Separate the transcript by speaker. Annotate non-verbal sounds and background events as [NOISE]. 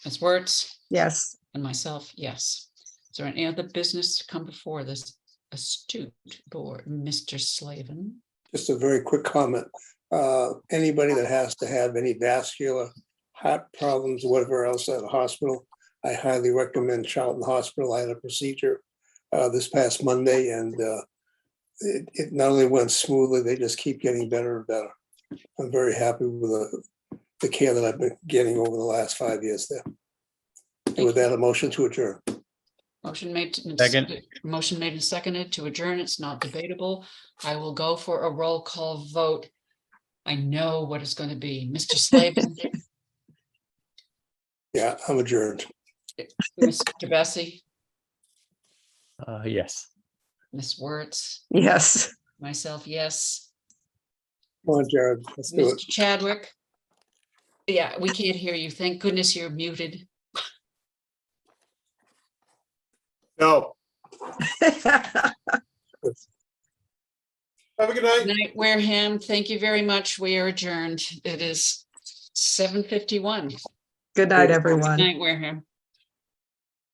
Speaker 1: Ms. Wertz
Speaker 2: Yes.
Speaker 1: and myself, yes. Is there any other business to come before this astute board, Mr. Slavin?
Speaker 3: just a very quick comment. Uh, Anybody that has to have any vascular heart problems, whatever else at the hospital, I highly recommend Charlton Hospital. I had a procedure uh, this past Monday and uh, it, it not only went smoothly, they just keep getting better and better. I'm very happy with the, the care that I've been getting over the last five years there. And With that, a motion to adjourn.
Speaker 1: Motion made. and
Speaker 4: Second.
Speaker 1: seconded- Motion made and seconded to adjourn. It's not debatable. I will go for a roll call vote. I know what it's going to be. Mr.
Speaker 3: [LAUGHS]
Speaker 1: Slavin,
Speaker 3: Yeah, I'm adjourned.
Speaker 1: Mr. Bessie,
Speaker 4: Uh, yes.
Speaker 1: Ms. Wertz,
Speaker 2: Yes.
Speaker 1: myself, yes.
Speaker 3: Come on, Jared, let's do it.
Speaker 1: Mr. Chadwick? Yeah, we can't hear you. Thank goodness you're muted.
Speaker 5: No.
Speaker 2: [LAUGHS] Good
Speaker 5: Have a good night.
Speaker 1: Night, Wareham, thank you very much. We are adjourned. It is seven fifty-one.
Speaker 2: night, everyone.
Speaker 1: Night, Wareham.